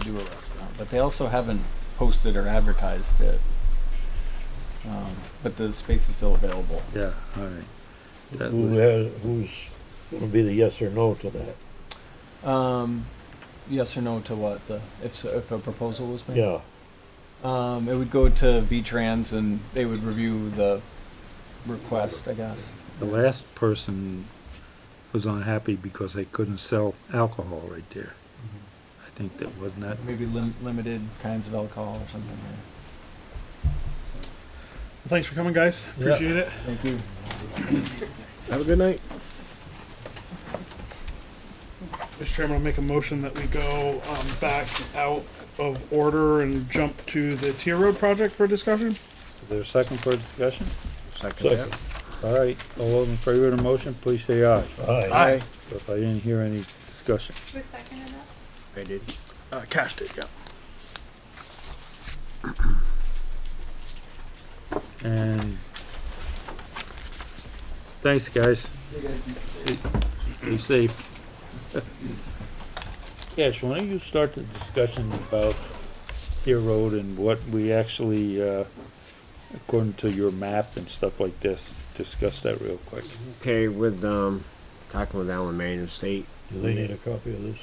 do a restaurant, but they also haven't posted or advertised it. Um, But the space is still available. Yeah, all right. That Who was- has, who's gonna be the yes or no to that? Um, yes or no to what? The, if, so- if a proposal was made? Yeah, Um, it would go to V-Trans and they would review the request, I guess. The last person was unhappy because they couldn't sell alcohol right there. Mm-hmm. I think that wasn't that, Maybe lim- limited kinds of alcohol or something. yeah. Thanks for coming, guys. Yeah. Appreciate it. Thank you. Have a good night. Mr. Chairman, I'll make a motion that we go um, back out of order and jump to the tier road project for discussion. is there a second for discussion? second, All right, all those in favor of the motion, please say aye. aye. So If I didn't hear any discussion. Who seconded that? I did. Uh, Cash did, yeah. And thanks, guys. Be safe. Cash, why don't you start the discussion about Pier Road and what we actually, uh, according to your map and stuff like this, discuss that real quick. Okay, with um, talking with Alan Main of State. Do they need a copy of this?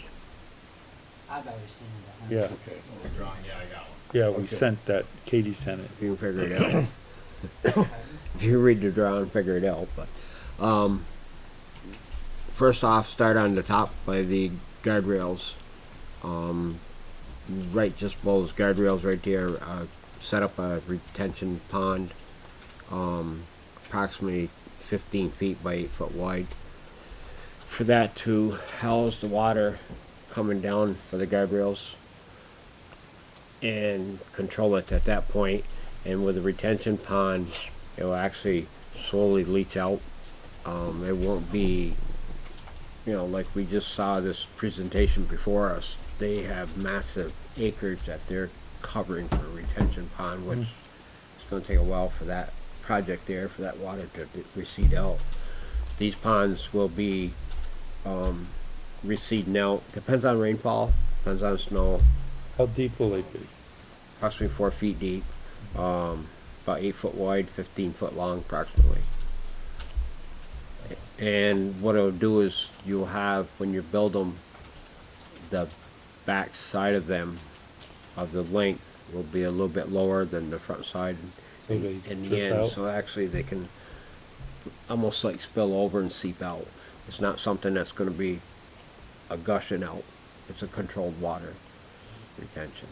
I've always seen that. Yeah, Okay. yeah, we Okay. sent that, Katie sent it. If you can figure it out. if you read the drawing, figure it out. But um, first off, start on the top by the guardrails. Um, right, just below those guardrails right there. Uh, set up a retention pond, um, approximately 15 feet by 8 foot wide. For that to house the water coming down for the guardrails and control it at that point. And with the retention pond, it will actually slowly leach out. Um, it won't be, you know, like we just saw this presentation before us. They have massive acreage that they're covering for a retention pond, which it's going to take a while for that project there for that water to d- recede out. These ponds will be um, receding out. Depends on rainfall, depends on snow How deep will they be? approximately four feet deep, um, about eight foot wide, fifteen foot long approximately. And what it'll do is you'll have, when you build them, the back side of them, of the length, will be a little bit lower than the front side So they in the drip end, out? so actually they can almost like spill over and seep out. It's not something that's gonna be a gushing out, it's a controlled water retention.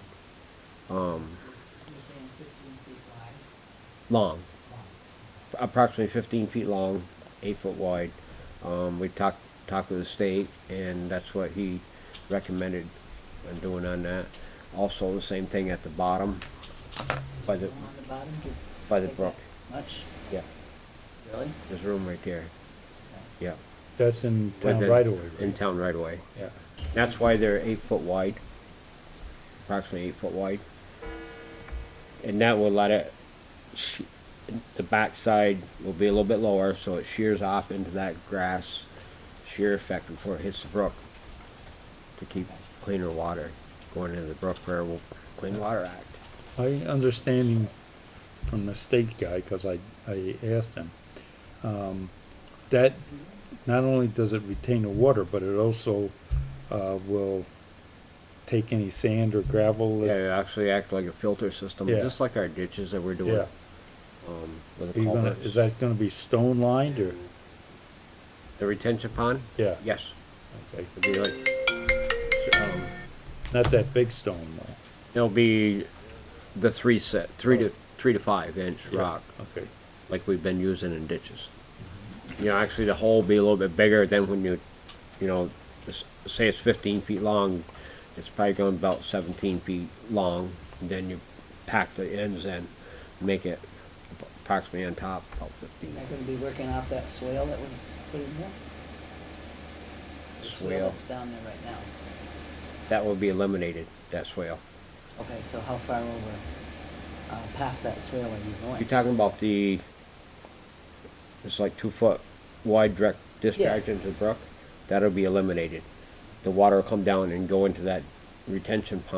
Um, You're saying fifteen feet wide, long, long. approximately fifteen feet long, eight foot wide. Um, we talked, talked with the state and that's what he recommended on doing on that. Also, the same thing at the bottom, Is By it the- long on the bottom to by the brook, much? yeah, Really? there's room right there, yeah. That's in with town it- right away, In right? town right away. Yeah. That's why they're eight foot wide, approximately eight foot wide. And that will let it, sh- the backside will be a little bit lower, so it shears off into that grass shear effect before it hits the brook to keep cleaner water going into the brook for our Clean Water Act. My understanding from the state guy, cause I, I asked him, um, that not only does it retain the water, but it also, uh, will take any sand or gravel. Yeah, that- it actually act like a filter system, Yeah. just like our ditches that we're doing, Yeah, um, with are the you gonna, culverts. is that gonna be stone lined or, The retention pond? yeah? Yes, okay. it'd be like, um, Not that big stone though. It'll be the three set, three to, three to five inch Yeah, rock, Okay, like we've been using in ditches. You know, actually the hole will be a little bit bigger than when you, you know, s- say it's fifteen feet long, it's probably going about seventeen feet long, then you pack the ends in, make it approximately on top about fifteen. Is that gonna be working off that swale that was put in there? The Swale. that's down there right now. That will be eliminated, that swale. Okay, so how far over, uh, past that swale are you going? You're talking about the, it's like two foot wide direct discharge into the brook? That'll be eliminated. The water will come down and go into that retention pond